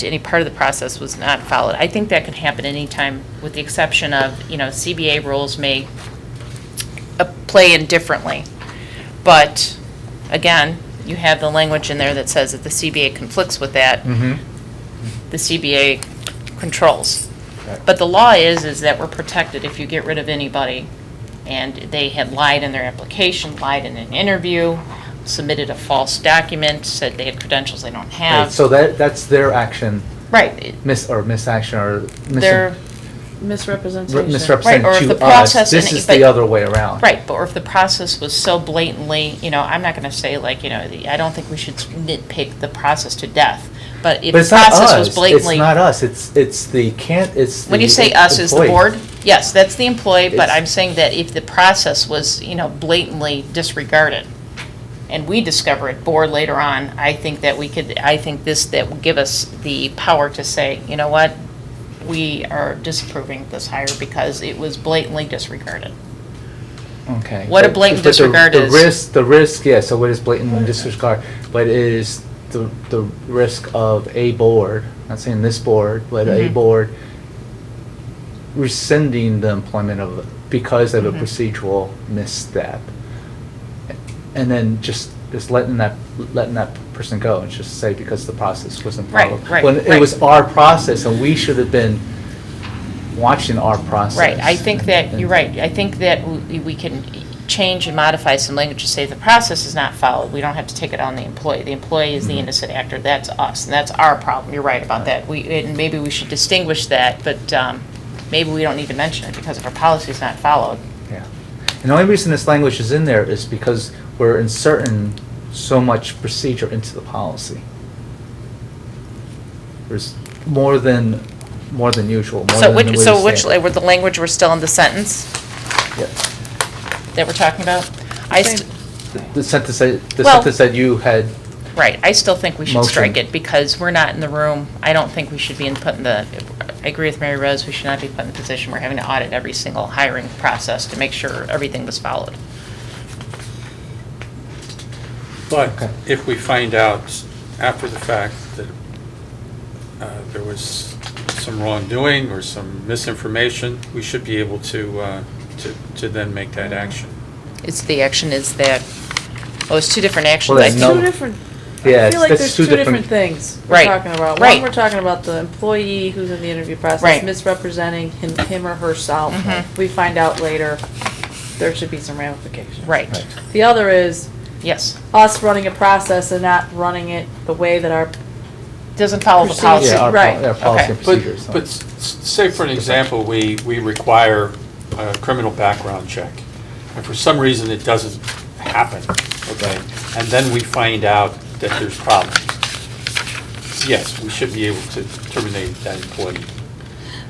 to any part of the process was not followed. I think that can happen anytime, with the exception of, you know, CBA rules may uh, play in differently. But, again, you have the language in there that says if the CBA conflicts with that, the CBA controls. Right. But the law is, is that we're protected if you get rid of anybody, and they had lied in their application, lied in an interview, submitted a false document, said they had credentials they don't Right, have. so that, that's their action, Right, it- mis, or misaction, or they're, misin- re- Misrepresentation. misrepresent or if the to us. process This and- is the but- other way around. right, but if the process was so blatantly, you know, I'm not gonna say like, you know, the- I don't think we should nitpick the process to death, but if But the it's not process us. was blatantly. It's not us, it's, it's the can't, it's the. When you say us as the employee. board, yes, that's the employee, but It's- I'm saying that if the process was, you know, blatantly disregarded, and we discover it, board later on, I think that we could, I think this, that will give us the power to say, you know what? We are disapproving this hire because it was blatantly disregarded. Okay. What a But- blatant but the- disregard is. The risk, the risk, yeah, so it is blatant disregard, but it is the, the risk of a board, not saying this board, but a Mhm. board rescinding the employment of, because of a Mhm. procedural misstep. And then just, just letting that, letting that person go and just say because the process wasn't Right, followed. right, When it right. was our process and we should have been watching our process. Right, I think that, and- you're right, I think that we we can change and modify some language to say the process is not followed, we don't have to take it on the employee. The employee is the Mhm. innocent actor, that's us, and that's our problem, you're right about that. We, and maybe we should distinguish that, but um, maybe we don't need to mention it because if our policy is not followed. Yeah. And the only reason this language is in there is because we're inserting so much procedure into the policy. There's more than, more than usual, more So than which, the so way we which, say it. were the language, we're still in the sentence Yeah. that we're talking about? I, st- The- The sentence that, the Well- sentence that you had, right, I still think we should Motion. strike it because we're not in the room, I don't think we should be in putting the, I agree with Mary Rose, we should not be put in the position we're having to audit every single hiring process to make sure everything was followed. Okay. But if we find out after the fact that uh, there was some wrongdoing or some misinformation, we should be able to, uh, to to then make that action. It's, the action is that, well, it's two different actions. Well, I there's think- no- Two different, yeah, I it's- feel like that's there's two different things we're Right, talking about. right. One, we're talking about the employee who's in the interview Right. process misrepresenting him, him or herself. Mhm. We find out later, there should be some ramifications. Right, Right. The other is yes. us running a process and not running it the way that our, Doesn't follow the Proceed. policy. Yeah, our, pol- Right. our policy and Okay. But, procedures. but s- s- say for an example, we, we require a criminal background check, and for some reason it doesn't happen, okay? And then we find out that there's problems. Yes, we should be able to terminate that employee.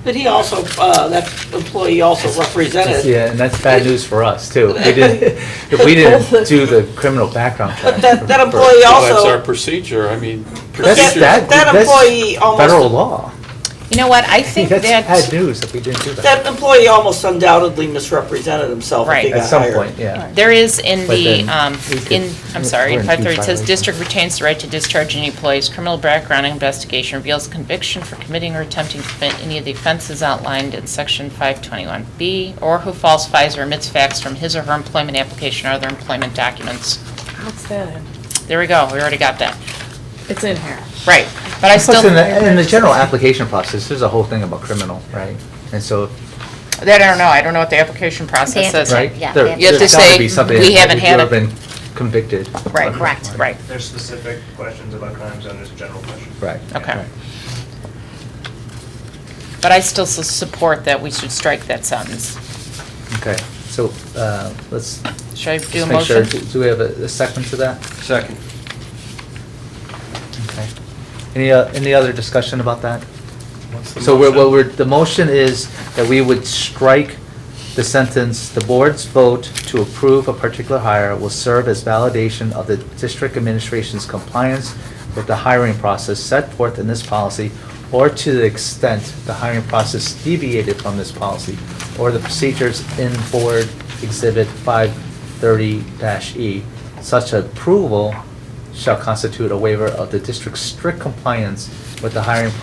But he also, uh, that employee also represented. Yeah, and that's bad news for us too. If we didn't, if we didn't do the criminal background check. But that, that for- for- employee Well, that's our also, procedure, I mean. But That's, that- procedures- that, that that's employee almost- federal law. You know what, I think That's bad that, news if we didn't do that employee almost undoubtedly misrepresented himself if he Right. got At some hired. point, yeah. there is in But the, then um, we could- in, I'm sorry, we're in in five thirty, it says, violation. district retains the right to discharge any employee's criminal background investigation reveals conviction for committing or attempting to commit any of the offenses outlined in section five twenty-one B, or who falsifies or omits facts from his or her employment application or other employment documents. what's that in? There we go, we already got that. It's in here. Right, but I still, Plus, in the, in the that general application process, there's a whole thing about criminal, right? And so, I don't know, I don't know what the application process is. right? Yeah, there- they have to- You have there's to gotta say, be something "We that haven't if had you it." have Been convicted. Right, Correct. right, There's specific questions about crime zone, there's general questions. Right. Okay. right. but I still s- support that we should strike that sentence. Okay, so, uh, let's Should I do a just make sure, motion? do do we have a a second to that? Second. Okay. Any, uh, any other discussion about that? What's the So we're, what motion? we're, the motion is that we would strike the sentence, "The board's vote to approve a particular hire will serve as validation of the district administration's compliance with the hiring process set forth in this policy, or to the extent the hiring process deviated from this policy, or the procedures in Board Exhibit 530-E. E, Such approval shall constitute a waiver of the district's strict compliance with the hiring